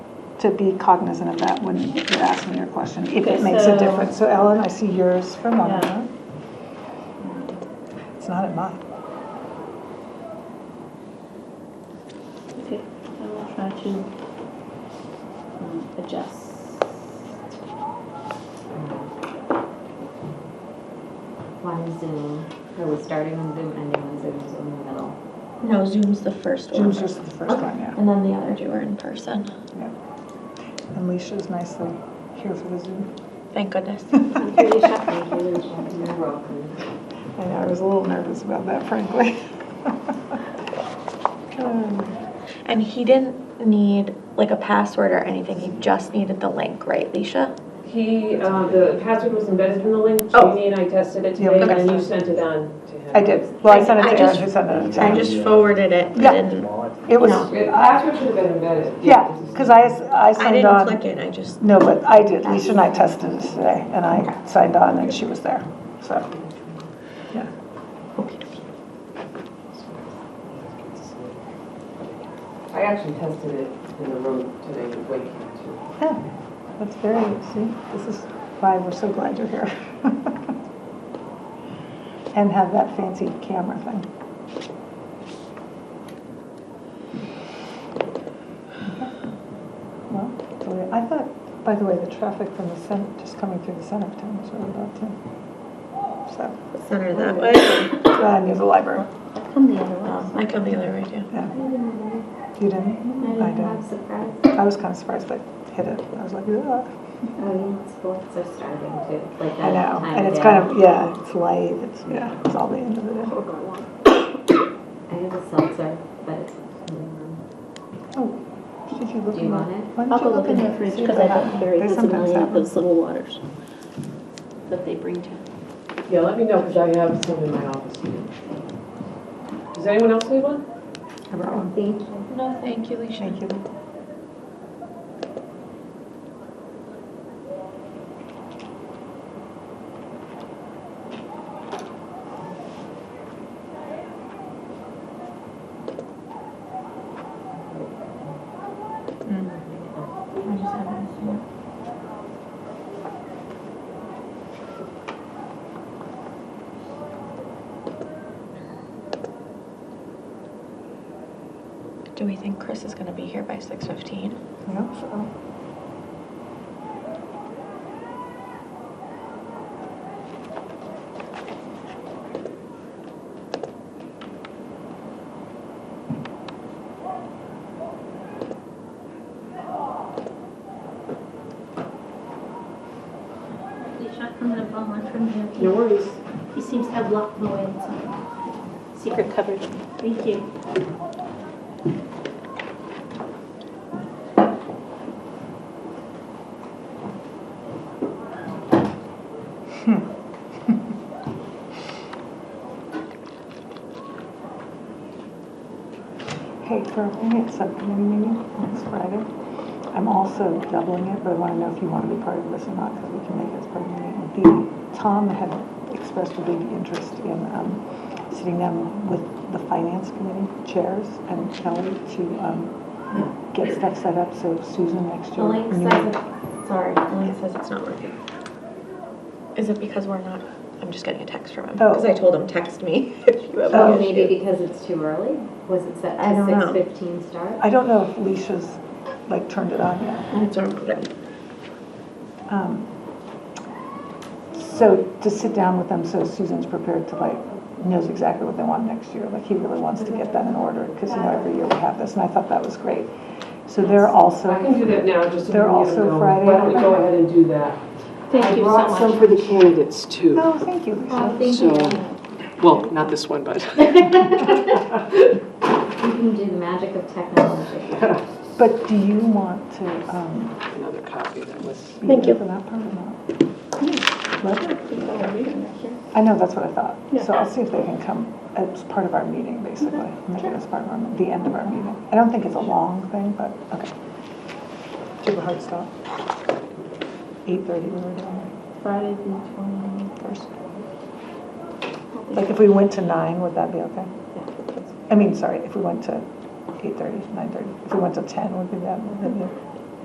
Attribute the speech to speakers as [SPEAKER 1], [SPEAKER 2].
[SPEAKER 1] to be cognizant of that when you're asking your question, if it
[SPEAKER 2] Okay,
[SPEAKER 1] makes
[SPEAKER 2] so-
[SPEAKER 1] a difference. So Ellen, I see yours for
[SPEAKER 2] Yeah.
[SPEAKER 1] Monica. It's not at mine.
[SPEAKER 2] Okay, I will try to um, adjust.
[SPEAKER 3] One Zoom, it was starting on Zoom, ending on Zoom, so in the middle.
[SPEAKER 4] No, Zoom's the first one.
[SPEAKER 1] Jim's just the first one, yeah.
[SPEAKER 4] And then the other two are in person.
[SPEAKER 1] And Leisha's nicely here for the Zoom.
[SPEAKER 4] Thank goodness.
[SPEAKER 3] I'm pretty shocked that he was walking the rope and-
[SPEAKER 1] I know, I was a little nervous about that, frankly. Um,
[SPEAKER 4] And he didn't need like a password or anything. He just needed the link, right, Leisha?
[SPEAKER 5] He, uh, the password was embedded in the link,
[SPEAKER 4] Oh.
[SPEAKER 5] Jamie and I tested it
[SPEAKER 1] Yeah,
[SPEAKER 5] today,
[SPEAKER 1] okay.
[SPEAKER 5] and you sent it on to him.
[SPEAKER 1] I did, well, I sent it
[SPEAKER 4] I
[SPEAKER 1] to Aaron,
[SPEAKER 4] just-
[SPEAKER 1] who sent it to
[SPEAKER 4] I
[SPEAKER 1] Aaron.
[SPEAKER 4] just forwarded it.
[SPEAKER 1] Yeah.
[SPEAKER 4] I didn't,
[SPEAKER 1] It was,
[SPEAKER 5] It- Password should have been embedded.
[SPEAKER 1] yeah, because I, s- I
[SPEAKER 4] I
[SPEAKER 1] signed
[SPEAKER 4] didn't
[SPEAKER 1] on.
[SPEAKER 4] click it. I just,
[SPEAKER 1] No, but I did, Leisha and I tested it today, and I signed on, and she was there, so.
[SPEAKER 5] I actually tested it in the room today with Wake too.
[SPEAKER 1] That's very, see, this is why we're so glad you're here. And have that fancy camera thing. Well, that's all right. I thought, by the way, the traffic from the center, just coming through the center of town was really bad too. So,
[SPEAKER 4] center that way.
[SPEAKER 1] uh, near the library,
[SPEAKER 3] Come the other way.
[SPEAKER 4] Um, I come the other way too.
[SPEAKER 1] yeah. You didn't?
[SPEAKER 3] I
[SPEAKER 1] I
[SPEAKER 3] didn't
[SPEAKER 1] don't.
[SPEAKER 3] have surprise.
[SPEAKER 1] I was kind of surprised they hit it. I was like, ugh.
[SPEAKER 3] Oh, yeah, sports are starting to, like
[SPEAKER 1] I
[SPEAKER 3] that
[SPEAKER 1] know,
[SPEAKER 3] time
[SPEAKER 1] and it's
[SPEAKER 3] day.
[SPEAKER 1] kind of, yeah, it's light, it's, yeah, it's all the end of the day.
[SPEAKER 3] I have a seltzer, but it's, mm,
[SPEAKER 1] Did you look
[SPEAKER 3] do you
[SPEAKER 1] in
[SPEAKER 3] want
[SPEAKER 1] the-
[SPEAKER 3] it?
[SPEAKER 1] why don't
[SPEAKER 2] I'll
[SPEAKER 1] you
[SPEAKER 2] go look in
[SPEAKER 1] the
[SPEAKER 2] your fridge because I got very
[SPEAKER 1] They sometimes
[SPEAKER 2] familiar
[SPEAKER 1] have
[SPEAKER 2] with
[SPEAKER 1] them.
[SPEAKER 2] those little waters that they bring to.
[SPEAKER 5] Yeah, let me know, because I have some in my office. Does anyone else need one?
[SPEAKER 1] I brought one.
[SPEAKER 3] Thank you.
[SPEAKER 4] No, thank you, Leisha.
[SPEAKER 1] Thank you.
[SPEAKER 4] Do we think Chris is gonna be here by six fifteen?
[SPEAKER 1] I hope so.
[SPEAKER 6] I'm gonna borrow one from you.
[SPEAKER 5] No worries.
[SPEAKER 6] He seems to have locked them away in some secret cupboard. Thank you.
[SPEAKER 1] Hey, for a minute subcommittee meeting next Friday, I'm also doubling it, but I want to know if you want to be part of this or not, because we can make it as part of the meeting. The, Tom had expressed a big interest in, um, sitting down with the finance committee chairs and Kelly to, um, get stuff set up, so Susan next
[SPEAKER 3] The
[SPEAKER 1] year.
[SPEAKER 3] link says, it- sorry, the link
[SPEAKER 4] It says it's not working. Is it because we're not, I'm just getting a text from him,
[SPEAKER 1] Oh.
[SPEAKER 4] because I told him, text me if you have
[SPEAKER 3] Oh,
[SPEAKER 4] an
[SPEAKER 3] maybe
[SPEAKER 4] issue.
[SPEAKER 3] because it's too early? Was it set
[SPEAKER 4] I
[SPEAKER 3] to
[SPEAKER 4] don't know.
[SPEAKER 3] six fifteen start?
[SPEAKER 1] I don't know if Leisha's, like, turned it on yet.
[SPEAKER 4] It's all right.
[SPEAKER 1] Um, So to sit down with them, so Susan's prepared to like, knows exactly what they want next year, like he really wants to get that in order, because you know, every year we have this, and I thought that was great. So they're also,
[SPEAKER 5] I can do that now, just so
[SPEAKER 1] They're
[SPEAKER 5] you
[SPEAKER 1] also
[SPEAKER 5] know.
[SPEAKER 1] Friday.
[SPEAKER 5] Why don't we go ahead and do that?
[SPEAKER 6] Thank you so
[SPEAKER 7] I brought some
[SPEAKER 6] much.
[SPEAKER 7] for the candidates too.
[SPEAKER 1] oh, thank you,
[SPEAKER 3] Oh,
[SPEAKER 5] Um,
[SPEAKER 1] Leisha.
[SPEAKER 3] thank you.
[SPEAKER 7] So- Well, not this one, but
[SPEAKER 3] You can do the magic of technology.
[SPEAKER 1] But do you want to um,
[SPEAKER 7] another copy that was,
[SPEAKER 1] be
[SPEAKER 4] Thank
[SPEAKER 1] there
[SPEAKER 4] you.
[SPEAKER 1] for that part or not? Love it. I know, that's what I thought. So I'll see if they can come as part of our meeting, basically, make it as part of our, the end of our meeting. I don't think it's a long thing, but, okay. Do you have a hard stop? Eight thirty, we were doing.
[SPEAKER 6] Friday the twenty-first.
[SPEAKER 1] Like, if we went to nine, would that be okay? I mean, sorry, if we went to eight thirty, nine thirty, if we went to ten, would be that, would that be-